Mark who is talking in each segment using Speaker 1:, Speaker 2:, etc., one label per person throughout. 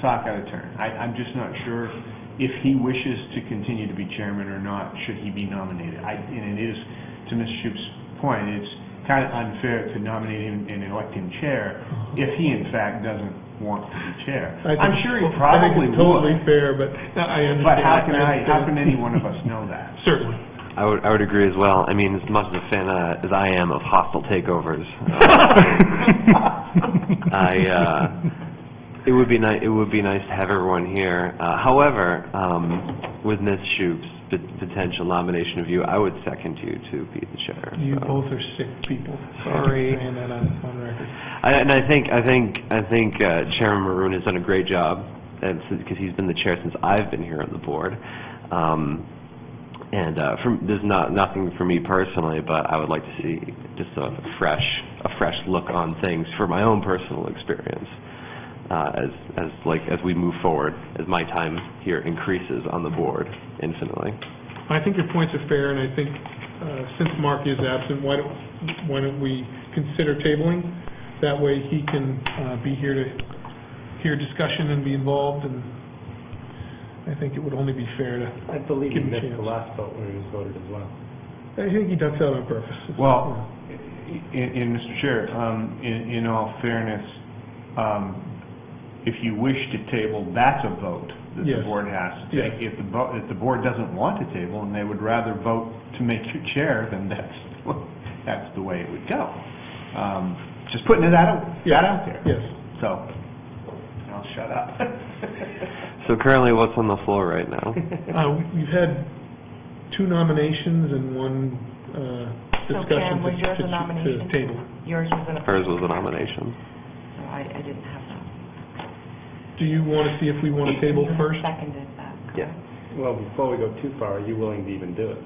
Speaker 1: talk out of turn. I, I'm just not sure if he wishes to continue to be chairman or not, should he be nominated. I, and it is, to Mr. Shoup's point, it's kind of unfair to nominate him and elect him chair if he in fact doesn't want to be chair.
Speaker 2: I think-
Speaker 1: I'm sure he
Speaker 2: I think
Speaker 1: probably
Speaker 2: it's totally
Speaker 1: would,
Speaker 2: fair, but I understand.
Speaker 1: but how can I, how can
Speaker 2: understand.
Speaker 1: any one of us know that?
Speaker 2: Certainly.
Speaker 3: I would, I would agree as well. I mean, as much of a fan uh, as I am of hostile takeovers, uh, I, uh, it would be nice, it would be nice to have everyone here. Uh, however, um, with Ms. Shoup's pot- potential nomination of you, I would second you to be the chair.
Speaker 2: You
Speaker 3: so.
Speaker 2: both are sick people.
Speaker 3: Sorry.
Speaker 2: Saying that on, on record.
Speaker 3: I, and I think, I think, I think uh, Chairman Maroon has done a great job, because he's been the chair since I've been here on the board. Um, and uh, from, there's not, nothing for me personally, but I would like to see just a fresh, a fresh look on things for my own personal experience, uh, as, as like, as we move forward, as my time here increases on the board infinitely.
Speaker 2: I think your points are fair, and I think, uh, since Mark is absent, why don't, why don't we consider tabling? That way he can uh, be here to hear discussion and be involved, and I think it would only be fair to,
Speaker 4: I believe
Speaker 2: Give
Speaker 4: he
Speaker 2: him a
Speaker 4: missed the
Speaker 2: chance.
Speaker 4: last vote where he was voted as well.
Speaker 2: I think he ducks out on purpose.
Speaker 1: Well, in, in, Mr. Chair, um, in, in all fairness, um, if you wish to table, that's a vote that the
Speaker 2: Yes.
Speaker 1: board has to take. If the, vo- if the board doesn't want to table and they would rather vote to make you chair, then that's, that's the way it would go. Um, just putting it out, that out there.
Speaker 2: Yes.
Speaker 1: So, I'll shut up.
Speaker 3: So currently, what's on the floor right now?
Speaker 2: Uh, we- We've had two nominations and one uh,
Speaker 5: So
Speaker 2: discussion
Speaker 5: Karen,
Speaker 2: to
Speaker 5: was yours
Speaker 2: to-
Speaker 5: a
Speaker 2: to
Speaker 5: nomination?
Speaker 2: table.
Speaker 5: Yours was an...
Speaker 3: Hers was a nomination.
Speaker 5: No, I, I didn't have that.
Speaker 2: Do you want to see if we want to table
Speaker 5: You
Speaker 2: first?
Speaker 5: Seconded that.
Speaker 3: Yeah.
Speaker 4: Well, before we go too far, are you willing to even do it?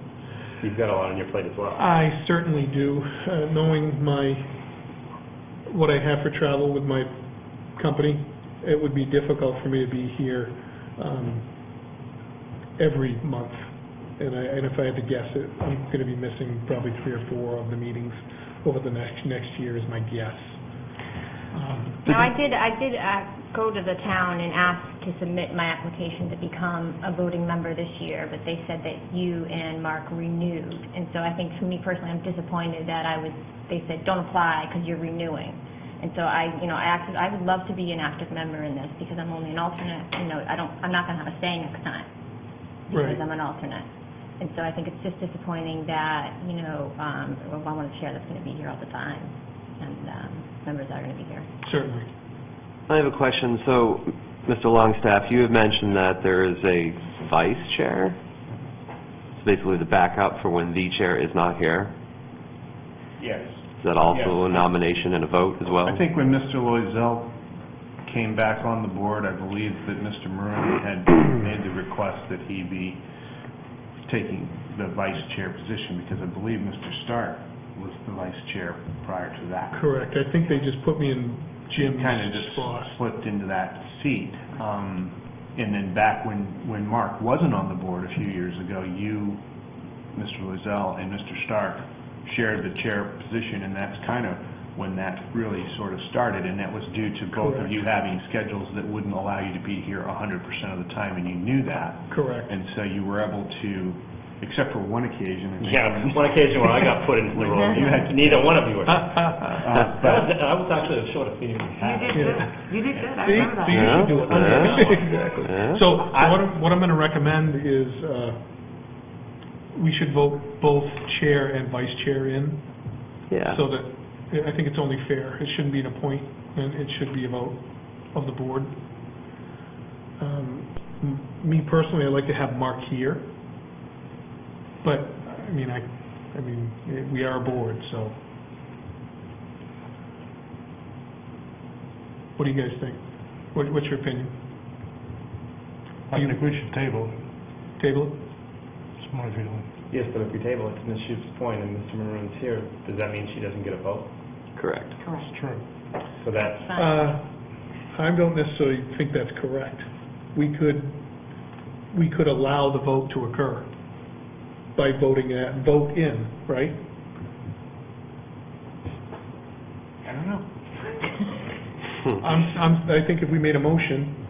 Speaker 4: You've got a lot on your plate as well.
Speaker 2: I certainly do, Uh, knowing my, what I have for travel with my company, it would be difficult for me to be here um, every month. And I, and if I had to guess it, I'm going to be missing probably three or four of the meetings over the next, next year is my guess. Um,
Speaker 6: Now, I did, I did uh, go to the town and ask to submit my application to become a voting member this year, but they said that you and Mark renewed. And so I think for me personally, I'm disappointed that I was, they said, don't apply because you're renewing. And so I, you know, I acted, I would love to be an active member in this because I'm only an alternate, you know, I don't, I'm not going to have a say next time
Speaker 2: Right.
Speaker 6: because I'm an alternate. And so I think it's just disappointing that, you know, um, well, I want a chair that's going to be here all the time and um, members are going to be here.
Speaker 2: Certainly.
Speaker 3: I have a question. So, Mr. Longstaff, you have mentioned that there is a vice chair. It's basically the backup for when the chair is not here.
Speaker 1: Yes.
Speaker 3: Is that also a
Speaker 1: Yes.
Speaker 3: nomination and a vote as well?
Speaker 1: I think when Mr. Loisel came back on the board, I believe that Mr. Maroon had made the request that he be taking the vice chair position, because I believe Mr. Stark was the vice chair prior to that.
Speaker 2: Correct. I think they just put me in Jim's
Speaker 1: Kind of just
Speaker 2: spot.
Speaker 1: slipped into that seat. Um, And then back when, when Mark wasn't on the board a few years ago, you, Mr. Loisel, and Mr. Stark shared the chair position, and that's kind of when that really sort of started, and that was due to both of
Speaker 2: Correct.
Speaker 1: you having schedules that wouldn't allow you to be here 100% of the time, and you knew that.
Speaker 2: Correct.
Speaker 1: And so you were able to, except for one occasion. I think,
Speaker 4: Yeah, one occasion when I got put into the role, you had, neither one of you were. That
Speaker 1: uh, but-
Speaker 4: was, I was actually the shortest meeting we
Speaker 5: You
Speaker 4: had.
Speaker 5: did
Speaker 2: Yeah.
Speaker 5: good. You did good. I
Speaker 2: See,
Speaker 5: remember
Speaker 2: see, you
Speaker 5: that.
Speaker 2: should do it.
Speaker 3: Yeah.
Speaker 2: Exactly.
Speaker 3: Yeah.
Speaker 2: So what I'm, what I'm going to recommend is, uh, we should vote both chair and vice chair in,
Speaker 3: Yeah.
Speaker 2: so that, I think it's only fair. It shouldn't be an appointment, it should be a vote of the board. Um, m- Me personally, I'd like to have Mark here, but, I mean, I, I mean, eh, we are a board, so. What do you guys think? What- What's your opinion?
Speaker 7: I think we should table it,
Speaker 2: Table it?
Speaker 7: it's my feeling.
Speaker 4: Yes, but if we table it to Ms. Shoup's point and Mr. Maroon's here, does that mean she doesn't get a vote?
Speaker 3: Correct.
Speaker 5: Correct.
Speaker 7: It's true.
Speaker 4: So that's,
Speaker 2: Uh, I don't necessarily think that's correct. We could, we could allow the vote to occur by voting that, vote in, right?
Speaker 1: I don't know.
Speaker 2: I'm, I'm, I think if we made a motion,